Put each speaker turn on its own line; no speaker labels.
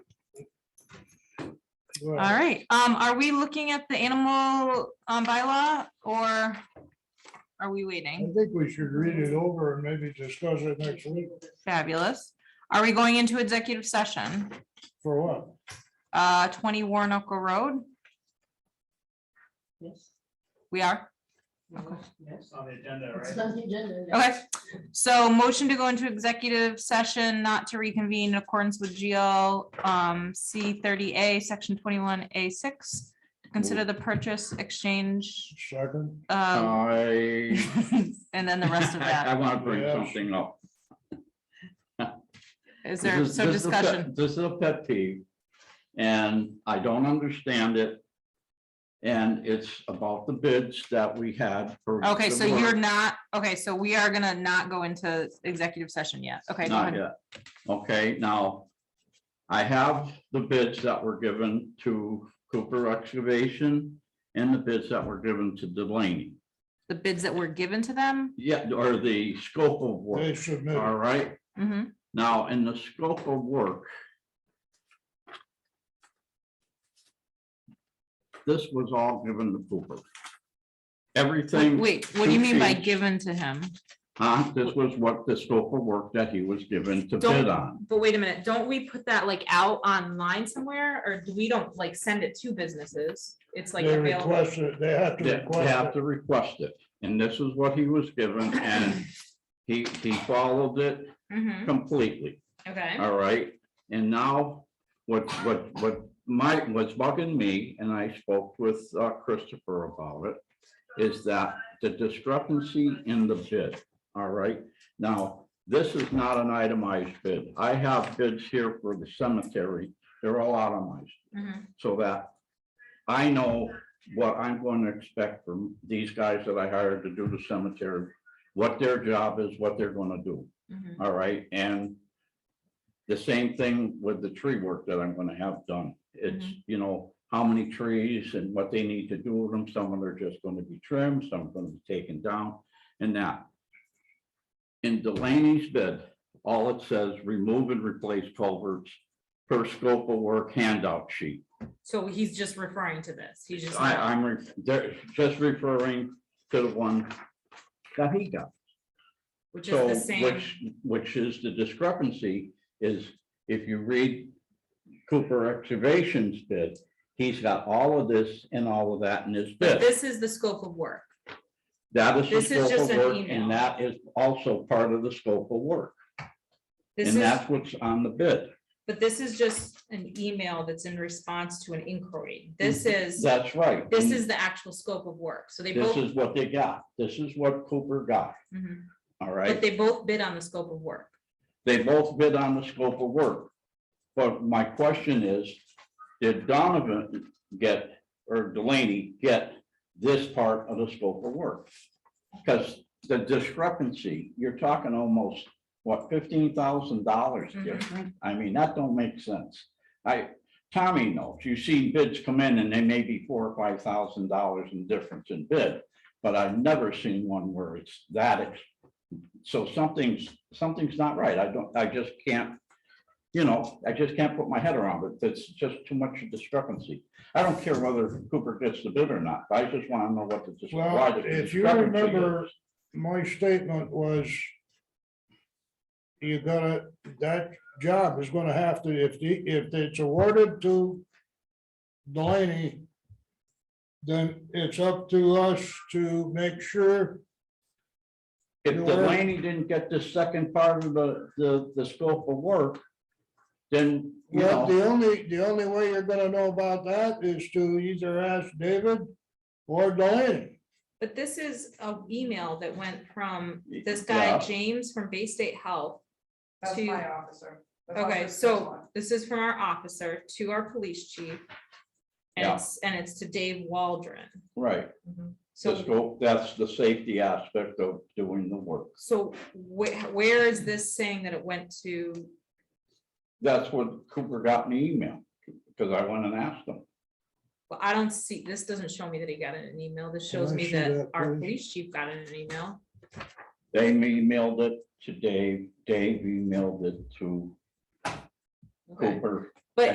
All
All right, um, are we looking at the animal, um, bylaw or are we
I
waiting?
think we should read it over and maybe discuss it next week.
Fabulous. Are we going into executive session?
For what?
Uh, twenty Warnoco Road,
Yes.
we are,
Yes.
on the agenda,
It's
right?
on the agenda. yeah.
okay. So motion to go into executive session, not to reconvene in accordance with GL, um, C thirty A, section twenty-one A six. to Consider the purchase, exchange,
Second?
Um.
uh,
I.
and then the rest of
I
that.
want to bring
Yeah.
something up.
Is
This
there,
is-
so
this is a pet-
discussion,
This is a pet peeve, and I don't understand it. And it's about the bids that we had for.
okay,
the
so you're
work.
not, okay, so we are gonna not go into executive session yet, okay, go
Not
ahead.
yet. Okay, now, I have the bids that were given to Cooper Excavation and the bids that were given to Delaney.
The bids that were given to them,
Yeah, or the scope of
They
work, all
submitted.
right?
hmm
Now, in the scope of work. This was all given to Cooper. Everything.
wait, what do you mean by
Two sheets.
given to him?
Huh? This was what the scope of work that he was given to bid on.
Don't, but wait a minute, don't we put that like out online somewhere, or do we don't like send it to businesses? It's like
They
available,
requested, they have to
They they
request
have to request it, and this is what he was given, and he, he followed it
Mhm,
completely.
okay,
All right, and now, what, what, what my, what's bugging me, and I spoke with uh, Christopher about it, is that the discrepancy in the bid, all right? Now, this is not an itemized bid. I have bids here for the cemetery. They're all itemized,
mhm,
so that I know what I'm going to expect from these guys that I hired to do the cemetery, what their job is, what they're gonna do.
mhm.
All right, and the same thing with the tree work that I'm gonna have done. It's, you know, how many trees and what they need to do with them. Some of them are just gonna be trimmed, some are gonna be taken down and that. In Delaney's bid, all it says, remove and replace culverts per scope of work handout sheet.
So he's just referring to this, he's just.
I, I'm re- they're just referring to the one that he got.
Which
So, which, which is the discrepancy is if you read Cooper Excavations bid, he's got all of this and all of that in his bid.
this is the scope of work.
That is. the
this is
scope
just
of
an
work,
email.
And that is also part of the scope of work.
This
And
is,
that's what's on the bid.
but this is just an email that's in response to an inquiry. This
Mm-hmm.
is,
That's right.
this
And
is the actual scope of work. So they
Mm. This
both,
is what they got. This is what Cooper got.
Mhm.
All
but
right.
they both bid on the scope of work.
They both bid on the scope of work. But my question is, did Donovan get, or Delaney get this part of the scope of work? Because the discrepancy, you're talking almost, what, fifteen thousand dollars
Mhm.
different? I mean, that don't make sense. I, Tommy knows, you see bids come in and they may be four or five thousand dollars in difference in bid, but I've never seen one where it's that. ex- So something's, something's not right. I don't, I just can't, you know, I just can't put my head around it. That's just too much discrepancy. I don't care whether Cooper gets the bid or not. I just want to know what the. dis-
Well,
why the
if you
discrepancy is.
remember- My statement was you gotta, that job is gonna have to, if the, if it's awarded to Delaney, then it's up to us to make sure
If
You know what?
Delaney didn't get the second part of the, the, the scope of work, then, you
Well,
know,
the only, the only way you're gonna know about that is to either ask David or Delaney.
But this is an email that went from this guy,
Yeah.
James from Bay State Health.
That's
To-
my officer. That's
Okay,
officer's
so
one.
this is from our officer to our police chief. And
Yeah.
it's, and it's to Dave Waldron.
right,
Mm-hmm.
the
So,
scope, that's the safety aspect of doing the work.
so where, where is this saying that it went to?
That's what Cooper got in the email, because I went and asked him.
Well, I don't see, this doesn't show me that he got it in an email. This
Can
shows
I
me
see
that
that,
our
please?
police chief got it in an email.
They emailed it to Dave, Dave emailed it to
Okay.
Cooper,